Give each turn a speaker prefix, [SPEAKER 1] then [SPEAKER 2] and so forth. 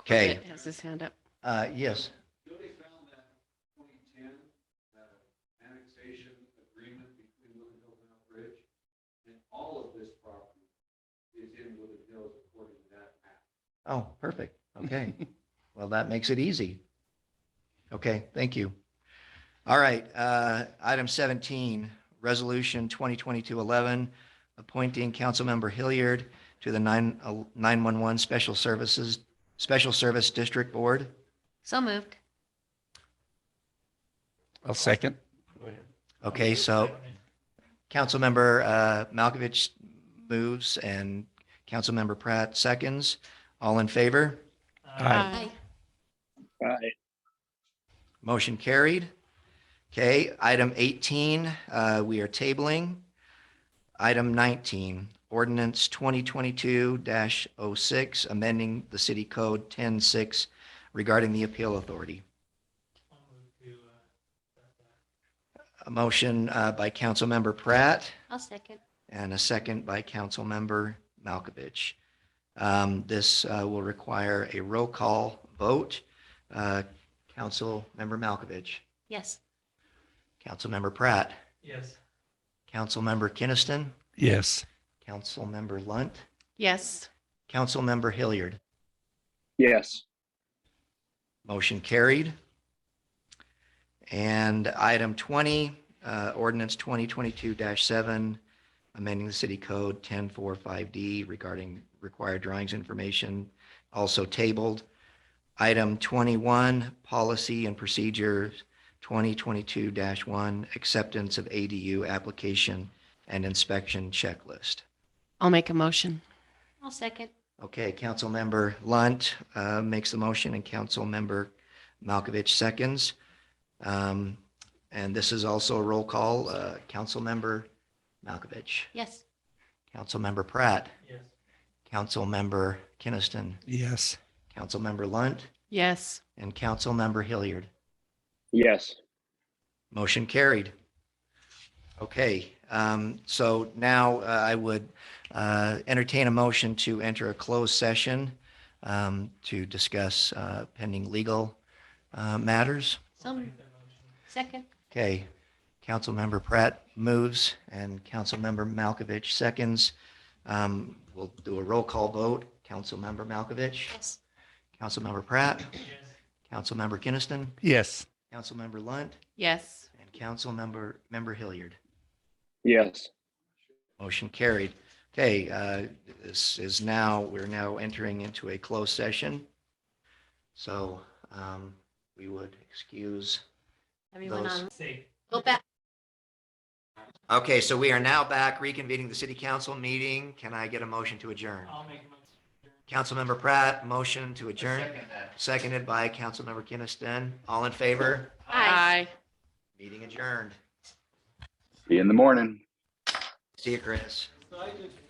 [SPEAKER 1] Okay.
[SPEAKER 2] Britt Has his hand up.
[SPEAKER 1] Uh, yes.
[SPEAKER 3] Jody found that twenty ten, that annexation agreement between Woodland Hills and Elk Ridge, and all of this property is in Woodland Hills according to that map.
[SPEAKER 1] Oh, perfect. Okay. Well, that makes it easy. Okay, thank you. All right, uh, item seventeen, resolution 2022-11, appointing Councilmember Hilliard to the nine, nine-one-one Special Services, Special Service District Board.
[SPEAKER 2] So moved.
[SPEAKER 4] I'll second.
[SPEAKER 1] Okay, so Councilmember uh, Malkovich moves and Councilmember Pratt seconds. All in favor?
[SPEAKER 4] Aye.
[SPEAKER 1] Motion carried. Okay, item 18, uh, we are tabling. Item 19, ordinance 2022-06, amending the city code 106 regarding the appeal authority. A motion uh, by Councilmember Pratt
[SPEAKER 2] I'll second.
[SPEAKER 1] and a second by Councilmember Malkovich. Um, This uh, will require a roll call vote. Uh, Councilmember Malkovich.
[SPEAKER 2] Yes.
[SPEAKER 1] Councilmember Pratt,
[SPEAKER 5] Yes.
[SPEAKER 1] Councilmember Kinnison,
[SPEAKER 4] Yes.
[SPEAKER 1] Councilmember Lunt,
[SPEAKER 2] Yes.
[SPEAKER 1] Councilmember Hilliard.
[SPEAKER 3] Yes.
[SPEAKER 1] Motion carried. And item 20, uh, ordinance 2022-7, amending the city code 1045D regarding required drawings information, also tabled. Item 21, policy and procedures 2022-1, acceptance of ADU application and inspection checklist.
[SPEAKER 2] I'll make a motion. I'll second.
[SPEAKER 1] Okay, Councilmember Lunt uh, makes the motion and Councilmember Malkovich seconds. Um, And this is also a roll call. Uh, Councilmember Malkovich,
[SPEAKER 2] Yes.
[SPEAKER 1] Councilmember Pratt,
[SPEAKER 5] Yes.
[SPEAKER 1] Councilmember Kinnison,
[SPEAKER 4] Yes.
[SPEAKER 1] Councilmember Lunt,
[SPEAKER 2] Yes.
[SPEAKER 1] and Councilmember Hilliard.
[SPEAKER 3] Yes.
[SPEAKER 1] Motion carried. Okay, um, so now uh, I would uh, entertain a motion to enter a closed session um, to discuss uh, pending legal uh, matters.
[SPEAKER 2] Some, second.
[SPEAKER 1] Okay, Councilmember Pratt moves and Councilmember Malkovich seconds. Um, We'll do a roll call vote. Councilmember Malkovich,
[SPEAKER 2] Yes.
[SPEAKER 1] Councilmember Pratt,
[SPEAKER 5] Yes.
[SPEAKER 1] Councilmember Kinnison,
[SPEAKER 4] Yes.
[SPEAKER 1] Councilmember Lunt,
[SPEAKER 2] Yes.
[SPEAKER 1] and Councilmember, Member Hilliard.
[SPEAKER 3] Yes.
[SPEAKER 1] Motion carried. Okay, uh, this is now, we're now entering into a closed session. So um, we would excuse.
[SPEAKER 2] Everyone
[SPEAKER 1] Those-
[SPEAKER 2] on.
[SPEAKER 5] Safe.
[SPEAKER 2] Go back.
[SPEAKER 1] Okay, so we are now back reconvening the city council meeting. Can I get a motion to adjourn?
[SPEAKER 5] I'll make a motion.
[SPEAKER 1] Councilmember Pratt, motion to adjourn,
[SPEAKER 5] that.
[SPEAKER 1] seconded by Councilmember Kinnison. All in favor?
[SPEAKER 2] Aye.
[SPEAKER 1] Meeting adjourned.
[SPEAKER 3] See you in the morning.
[SPEAKER 1] See you, Chris.
[SPEAKER 5] So I just